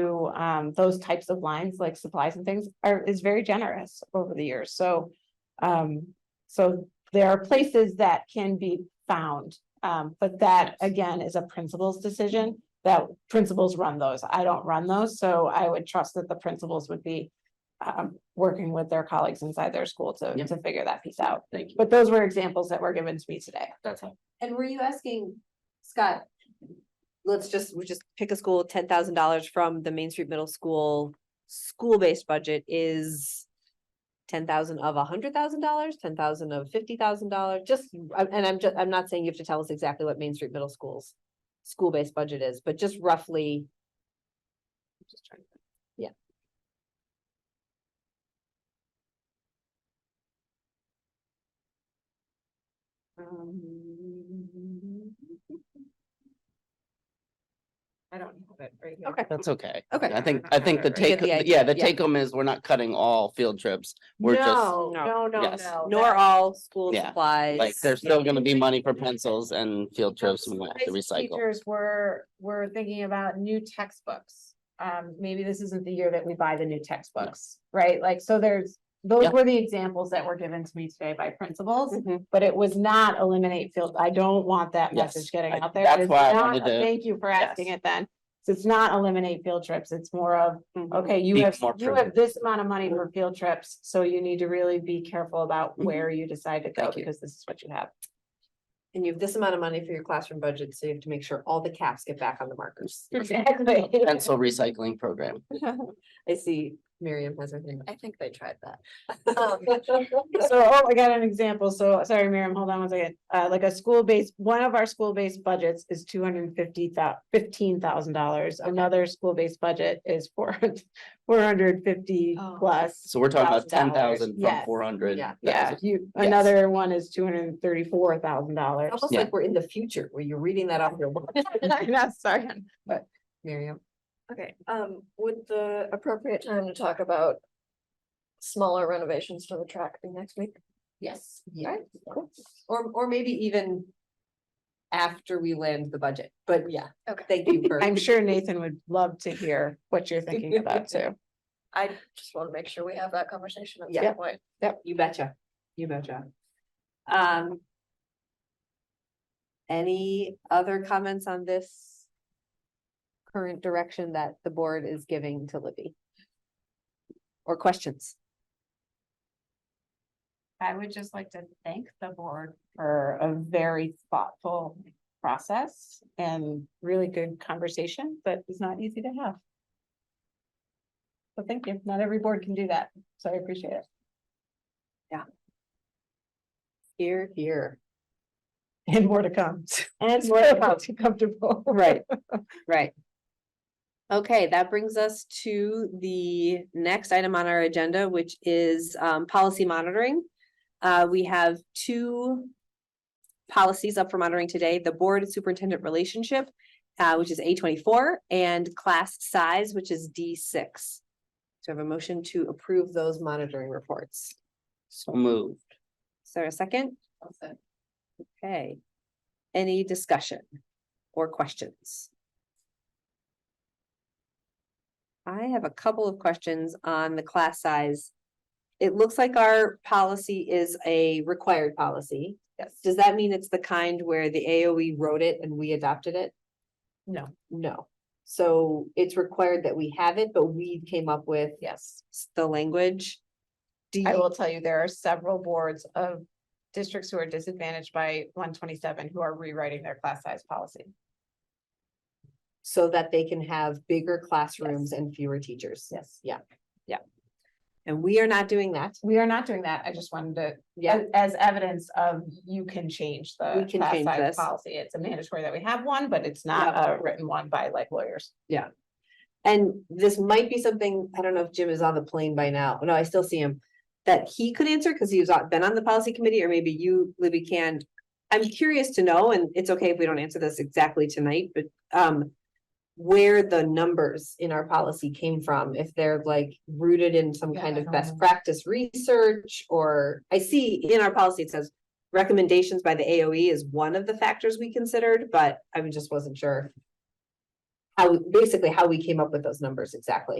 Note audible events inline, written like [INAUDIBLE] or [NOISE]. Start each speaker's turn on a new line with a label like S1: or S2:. S1: So um those types of lines like supplies and things are is very generous over the years. So um so there are places that can be found. Um but that again is a principal's decision that principals run those. I don't run those, so I would trust that the principals would be um working with their colleagues inside their school to
S2: Yep.
S1: to figure that piece out.
S2: Thank you.
S1: But those were examples that were given to me today.
S2: That's all.
S3: And were you asking, Scott? Let's just, we just pick a school, ten thousand dollars from the Main Street Middle School, school-based budget is. Ten thousand of a hundred thousand dollars, ten thousand of fifty thousand dollars, just, I- and I'm just, I'm not saying you have to tell us exactly what Main Street Middle School's. School-based budget is, but just roughly. Just trying to- Yeah. Um,
S1: [LAUGHS] I don't have it right
S3: Okay.
S2: That's okay.
S3: Okay.
S2: I think, I think the
S1: You
S3: get
S2: take,
S3: the
S2: yeah,
S3: idea,
S2: the
S3: yeah.
S2: take home is we're not cutting all field trips. We're just,
S1: No,
S3: No.
S1: no, no,
S2: Yes.
S1: no.
S3: Nor all school
S2: Yeah,
S3: supplies.
S2: like, there's still gonna be money for pencils and field trips we have to
S1: Basic
S2: recycle.
S1: Teachers were, were thinking about new textbooks. Um, maybe this isn't the year that we buy the new textbooks, right? Like, so there's, those
S2: Yeah. Mm-hmm.
S1: were the examples that were given to me today by principals.
S3: Mhm.
S1: But it was not eliminate field, I don't want that
S2: Yes,
S1: message getting
S2: I-
S1: out there.
S2: that's
S1: It's
S2: why I
S1: not-
S2: wanted to-
S1: Thank you for asking
S2: Yes.
S1: it then. So it's not eliminate field trips, it's more of
S3: Mhm.
S1: Okay,
S2: Mm-hmm. Be
S1: you have,
S2: more
S1: you have
S2: prudent. Mm-hmm.
S1: this amount of money for field trips, so you need to really be careful about
S2: Mhm.
S1: where you decide to go,
S2: Thank you.
S1: because this is what you have.
S3: And you have this amount of money for your classroom budget, so you have to make sure all the caps get back on the markers.
S1: Exactly. [LAUGHS]
S2: Pencil recycling program.
S3: I see Miriam has her hand. I think they tried [LAUGHS] Um,
S1: So,
S3: that.
S1: oh, I got an example, so, sorry, Miriam, hold on one second, uh, like a school-based, one of our school-based budgets is two hundred and fifty thou- fifteen thousand dollars. Another school-based budget is four, four hundred fifty
S3: Oh.
S1: plus.
S2: So we're talking about
S1: Thousand
S2: ten
S1: dollars.
S2: thousand from
S1: Yes.
S2: four hundred.
S3: Yeah.
S1: Yeah, you,
S2: Yes.
S1: another one is two hundred and thirty-four thousand dollars.
S3: Almost
S2: Yeah.
S3: like we're in the future where you're reading that off [LAUGHS] your wall,
S1: [LAUGHS] I'm not sorry, but
S3: Miriam.
S4: Okay, um, would the appropriate time to talk about smaller renovations to the track be next week?
S3: Yes. Yeah, cool. Or, or maybe even after we land the budget, but yeah.
S4: Okay.
S3: Thank you [LAUGHS] for.
S1: I'm sure Nathan would love to hear what you're thinking about too.
S4: I just want to make sure we have that conversation at
S3: Yeah.
S4: some point.
S3: You betcha, you betcha. Um. Any other comments on this? Current direction that the board is giving to Libby? Or questions?
S1: I would just like to thank the board for a very thoughtful process and really good conversation that is not easy to have. So thank you. Not every board can do that, so I appreciate it.
S3: Here, here.
S1: And more to come. [LAUGHS]
S3: And
S1: Too [LAUGHS] Comfortable.
S3: Right, right. Okay, that brings us to the next item on our agenda, which is um policy monitoring. Uh, we have two policies up for monitoring today, the board and superintendent relationship, uh, which is A twenty-four, and class size, which is D six. So I have a motion to approve those monitoring reports.
S2: So moved.
S3: Is there a second? Okay. Any discussion or questions? I have a couple of questions on the class size. It looks like our policy is a required policy.
S1: Yes.
S3: Does that mean it's the kind where the AOE wrote it and we adopted it?
S1: No.
S3: No. So it's required that we have it, but we came up with
S1: Yes.
S3: s- the language. Do
S1: I
S3: you,
S1: will tell you, there are several boards of districts who are disadvantaged by one twenty-seven who are rewriting their class size policy.
S3: so that they can have bigger classrooms and fewer teachers?
S1: Yes.
S3: And we are not doing that.
S1: We are not doing that. I just wanted to,
S3: Yeah,
S1: as- as evidence of you can change the
S3: We can
S1: class
S3: change
S1: size
S3: this.
S1: policy. It's a mandatory that we have one, but it's not a written one by like lawyers.
S3: and this might be something, I don't know if Jim is on the plane by now. No, I still see him. That he could answer because he's been on the policy committee or maybe you, Libby, can. I'm curious to know, and it's okay if we don't answer this exactly tonight, but um. Where the numbers in our policy came from, if they're like rooted in some
S1: Yeah,
S3: kind
S1: I
S3: of
S1: don't
S3: best
S1: know.
S3: practice research or I see in our policy, it says. Recommendations E by the AOE is one of the factors we considered, but I just wasn't sure. how, basically how we came up with those numbers exactly.